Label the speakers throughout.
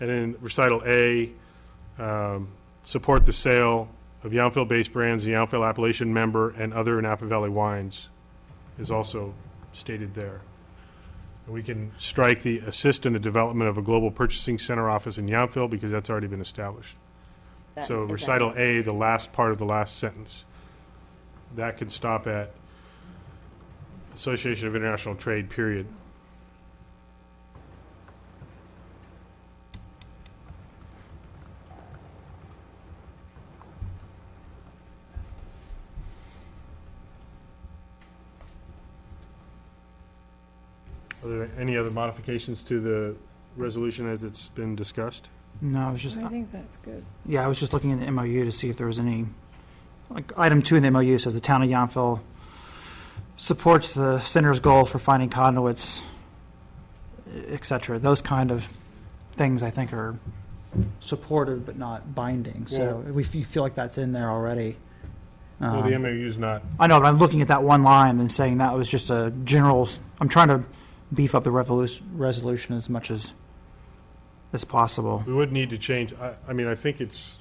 Speaker 1: And in recital A, um, support the sale of Yountville-based brands, the Yountville Appalachian member, and other Napa Valley wines is also stated there. And We can strike the assist in the development of a global purchasing center office in Yountville because that's already been established.
Speaker 2: That-
Speaker 1: So
Speaker 2: is that-
Speaker 1: recital A, the last part of the last sentence, that could stop at Association of International Trade, period. Are there any other modifications to the resolution as it's been discussed?
Speaker 3: No, I was just,
Speaker 2: I think that's good.
Speaker 3: yeah, I was just looking in the MOU to see if there was any, like, item two in the MOU says the town of Yountville supports the center's goal for finding conduits, et cetera. Those kind of things, I think, are supported but not binding. So we f- you feel like that's in there already.
Speaker 1: Well,
Speaker 3: Um,
Speaker 1: the MOU's not
Speaker 3: I know, but I'm looking at that one line and saying that was just a general, s- I'm trying to beef up the revolu- resolution as much as, as possible.
Speaker 1: We would need to change, I, I mean, I think it's,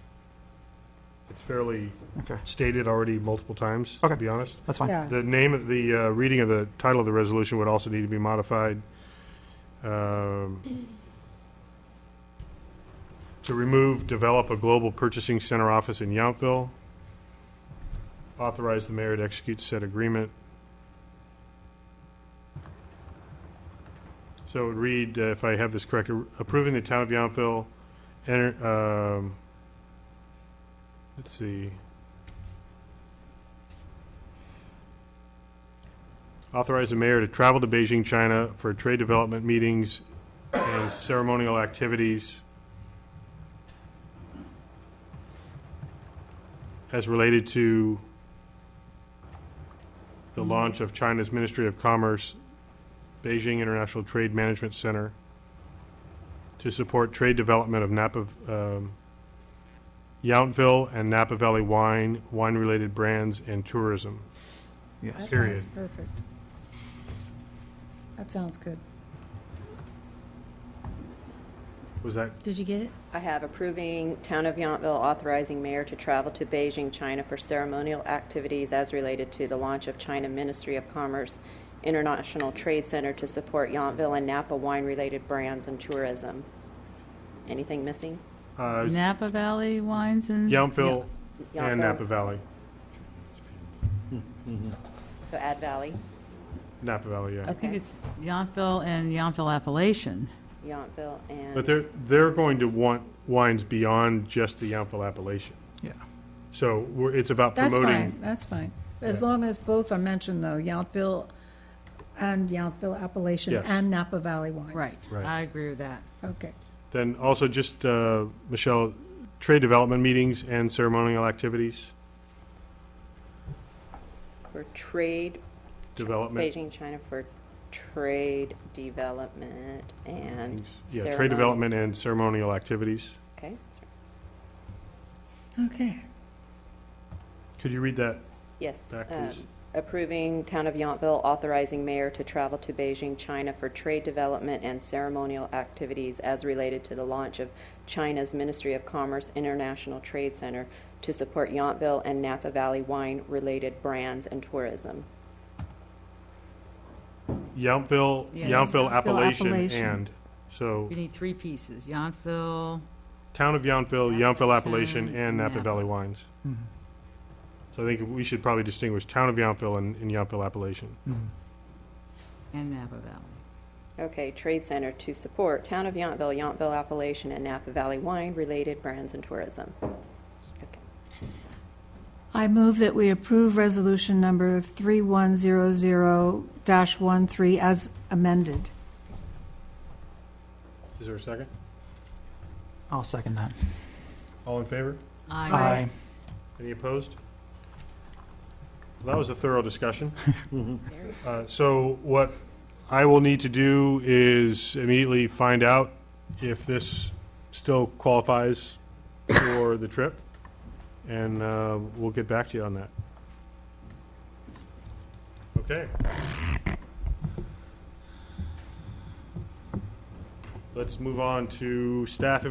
Speaker 1: it's fairly
Speaker 3: Okay.
Speaker 1: stated already multiple times, to
Speaker 3: Okay.
Speaker 1: be honest.
Speaker 3: That's fine.
Speaker 2: Yeah,
Speaker 1: The name of the, uh, reading of the title of the resolution would also need to be modified. um, To remove, develop a global purchasing center office in Yountville. Authorize the mayor to execute said agreement. So it would read, uh, if I have this correct, approving the town of Yountville, enter, um, let's see. Authorize the mayor to travel to Beijing, China for trade development meetings and ceremonial activities as related to the launch of China's Ministry of Commerce, Beijing International Trade Management Center, to support trade development of Napa, um, Yountville and Napa Valley wine, wine-related brands, and tourism.
Speaker 2: that
Speaker 3: Yes.
Speaker 1: Period.
Speaker 2: sounds perfect. That sounds good.
Speaker 1: Was that
Speaker 4: Did you get it?
Speaker 5: I have approving Town of Yountville authorizing mayor to travel to Beijing, China for ceremonial activities as related to the launch of China Ministry of Commerce International Trade Center to support Yountville and Napa wine-related brands and tourism. Anything missing?
Speaker 1: Uh,
Speaker 4: Napa Valley Wines and?
Speaker 1: Yountville
Speaker 5: Yountville.
Speaker 1: and Napa Valley.
Speaker 5: So Ad Valley,
Speaker 1: Napa Valley,
Speaker 4: I
Speaker 1: yeah.
Speaker 4: think it's Yountville and Yountville Appellation.
Speaker 5: Yountville and.
Speaker 1: But they're, they're going to want wines beyond just the Yountville appellation.
Speaker 3: Yeah.
Speaker 1: So we're, it's about
Speaker 2: That's
Speaker 1: promoting.
Speaker 2: fine, that's fine. As long as both are mentioned, though, Yountville and Yountville Appalachian
Speaker 1: Yes.
Speaker 2: and Napa Valley wine.
Speaker 4: Right.
Speaker 1: Right.
Speaker 4: I agree with that.
Speaker 2: Okay,
Speaker 1: Then also just, uh, Michelle, trade development meetings and ceremonial activities,
Speaker 5: For trade,
Speaker 1: development.
Speaker 5: Beijing, China for trade development and.
Speaker 1: Yeah, trade
Speaker 5: ceremony.
Speaker 1: development and ceremonial activities.
Speaker 5: Okay, that's right.
Speaker 2: okay.
Speaker 1: Could you read that?
Speaker 5: yes.
Speaker 1: Back,
Speaker 5: um,
Speaker 1: please.
Speaker 5: approving Town of Yountville authorizing mayor to travel to Beijing, China for trade development and ceremonial activities as related to the launch of China's Ministry of Commerce International Trade Center to support Yountville and Napa Valley wine-related brands and tourism.
Speaker 1: Yountville,
Speaker 4: Yes.
Speaker 1: Yountville
Speaker 4: Yountville
Speaker 1: appellation
Speaker 4: appellation.
Speaker 1: and, so,
Speaker 4: We need three pieces, Yountville,
Speaker 1: town of Yountville, Yountville appellation
Speaker 4: Appellation
Speaker 1: and
Speaker 4: and
Speaker 1: Napa
Speaker 4: Napa.
Speaker 1: Valley wines.
Speaker 3: Mhm.
Speaker 1: So I think we should probably distinguish town of Yountville and, and Yountville appellation.
Speaker 3: Mhm.
Speaker 4: and Napa Valley.
Speaker 5: Okay, Trade Center to support Town of Yountville, Yountville Appalachian, and Napa Valley wine-related brands and tourism. Okay.
Speaker 6: I move that we approve resolution number 3100-13 as amended.
Speaker 1: Is there a second?
Speaker 3: I'll second that.
Speaker 1: All in favor?
Speaker 4: I
Speaker 1: Any opposed? Well, That was a thorough discussion. Uh, So what I will need to do is immediately find out if this still qualifies for the trip, and uh, we'll get back to you on that. Okay. Let's move on to staff